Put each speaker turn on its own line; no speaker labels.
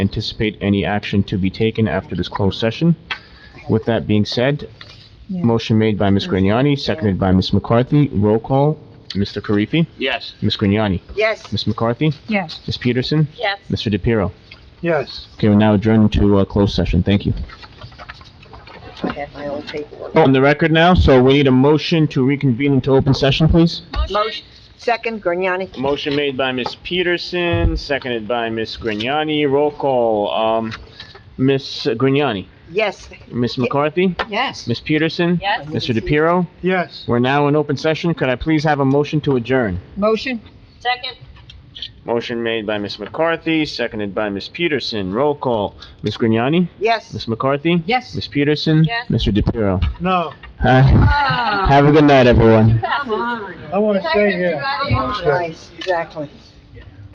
anticipate any action to be taken after this closed session. With that being said,
Yeah.
motion made by Ms. Grignani, seconded by Ms. McCarthy. Roll call, Mr. Karifi,
Yes.
Ms. Grignani,
Yes.
Ms. McCarthy,
Yes.
Ms. Peterson,
Yes.
Mr. DePiero.
Yes.
Okay, we're now adjourned to uh closed session. Thank you.
I had my own paperwork.
On the record now, so we need a motion to reconvene into open session, please.
Motion, second, Grignani?
Motion made by Ms. Peterson, seconded by Ms. Grignani. Roll call, um, Ms. Grignani,
Yes.
Ms. McCarthy,
Yes.
Ms. Peterson,
Yes.
Mr. DePiero.
Yes.
We're now in open session. Could I please have a motion to adjourn?
Motion?
Second,
Motion made by Ms. McCarthy, seconded by Ms. Peterson. Roll call, Ms. Grignani,
Yes.
Ms. McCarthy,
Yes.
Ms. Peterson,
Yes.
Mr. DePiero.
No,
Have a good night, everyone.
I want to stay here.
Nice, exactly.